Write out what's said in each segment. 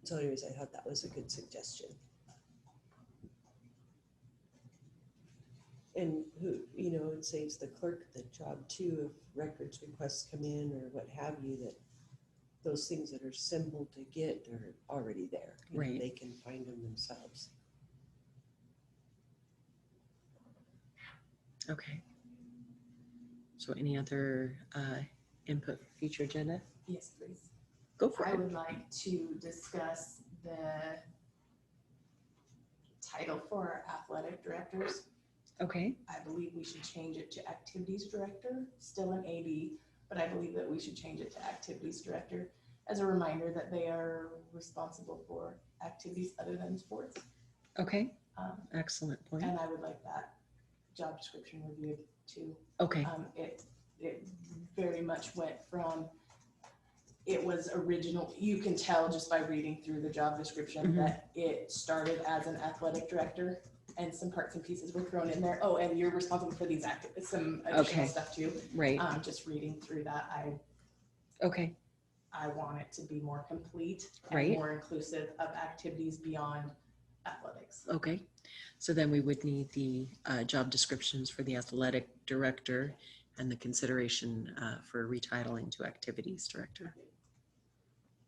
Conservatories, I thought that was a good suggestion. And who, you know, it saves the clerk the job too, if records requests come in or what have you, that those things that are simple to get are already there. You know, Right. They can find them themselves. Okay. So any other uh, input for future agenda? Yes, please. Go for I it. would like to discuss the title for our athletic directors. Okay, I believe we should change it to activities director, still an AD, but I believe that we should change it to activities director as a reminder that they are responsible for activities other than sports. okay, Um, excellent point. And I would like that job description reviewed too. Okay, uh, Um, it, it very much went from, it was original, you can tell just by reading through the job description Mhm. that it started as an athletic director and some parts and pieces were thrown in there. Oh, and you're responsible for these act, some Okay. additional stuff too. right, uh, Um, just reading through that, I, okay, I want it to be more complete and Right. more inclusive of activities beyond athletics. okay. So then we would need the uh, job descriptions for the athletic director and the consideration uh, for retitling to activities director.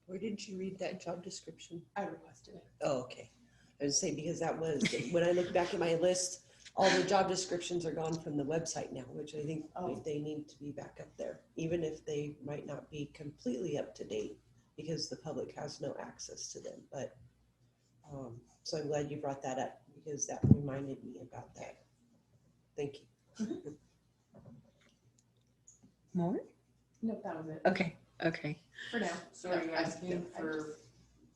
Where did you read that job description? I requested it. Oh, okay. I was saying because that was, when I look back at my list, all the job descriptions are gone from the website now, which I think Oh. they need to be back up there, even if they might not be completely up to date because the public has no access to them. But, um, so I'm glad you brought that up because that reminded me about that. Thank you. More? No, that was it Okay, okay. for now. So are you I- I- asking I for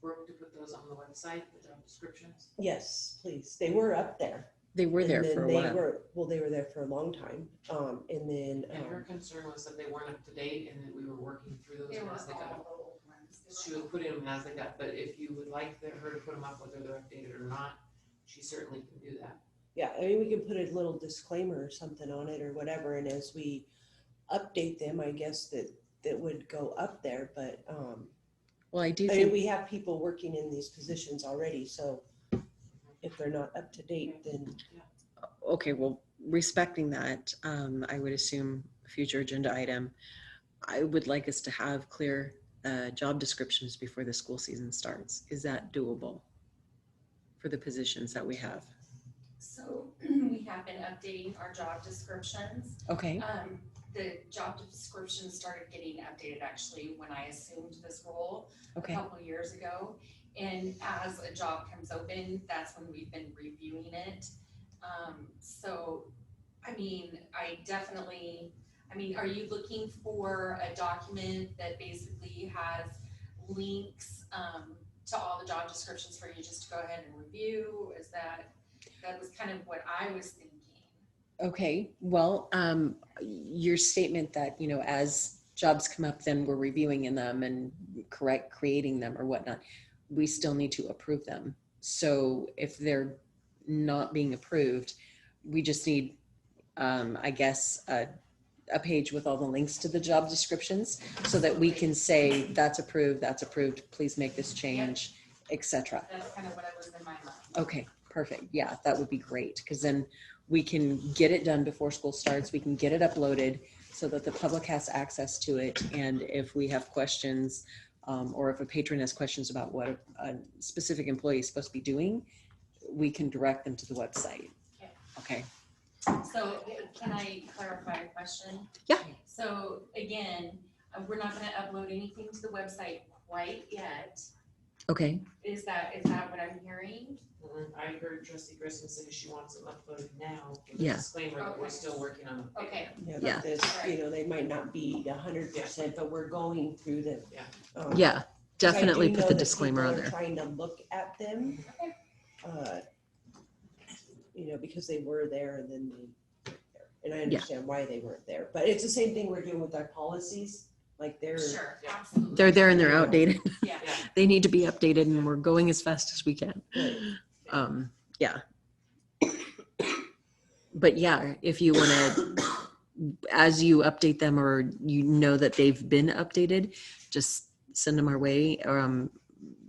Brooke to put those on the website, the job descriptions? Yes, please. They were up there. They were And there then for a they while. were- Well, they were there for a long time. Um, and then, And her um, concern was that they weren't up to date and that we were working through those They were all as they got. the old ones. They were She would put in them as they got, but if you would like the- her to put them up whether they're updated or not, she certainly can do that. Yeah, I mean, we can put a little disclaimer or something on it or whatever, and as we update them, I guess that, that would go up there, but, um, Well, I do I mean, think, we have people working in these positions already, so if they're not up to date, then, okay, well, respecting that, um, I would assume future agenda item. I would like us to have clear uh, job descriptions before the school season starts. Is that doable? For the positions that we have? So we have been updating our job descriptions. Okay, Um, the job description started getting updated actually when I assumed this role a okay, couple years ago. And as a job comes open, that's when we've been reviewing it. Um, so, I mean, I definitely, I mean, are you looking for a document that basically has links, um, to all the job descriptions for you just to go ahead and review? Is that, that was kind of what I was thinking. okay. Well, um, your statement that, you know, as jobs come up, then we're reviewing in them and correct, creating them or whatnot. We still need to approve them. So if they're not being approved, we just need, um, I guess, a, a page with all the links to the job descriptions so that we can say, that's approved, that's approved, please make this change, et cetera. That's kind of what I was in my mind. Okay, perfect. Yeah, that would be great because then we can get it done before school starts. We can get it uploaded so that the public has access to it. And if we have questions um, or if a patron has questions about what a, a specific employee is supposed to be doing, we can direct them to the website. Okay. Okay, So can I clarify a question? Yeah. So again, uh, we're not gonna upload anything to the website quite yet. okay, Is that, is that what I'm hearing? Mhm. Mm-hmm. I heard trustee Grissom say she wants them uploaded now. with a Yeah. Disclaimer that we're Okay. still working on them. Okay, yeah, Yeah. but this, you know, they might not be a hundred percent, but we're going through them. Yeah. Um, yeah, because I do definitely know put the that disclaimer people on are there. Trying to look at them. Okay. uh, You know, because they were there and then they, weren't there. and I Yeah. understand why they weren't there, but it's the same thing we're doing with our policies, like they're, sure, Yeah. absolutely. They're there and they're Yeah. outdated. Yeah. They need to be updated and we're going as fast as we can. um yeah but yeah if you want to as you update them or you know that they've been updated just send them our way um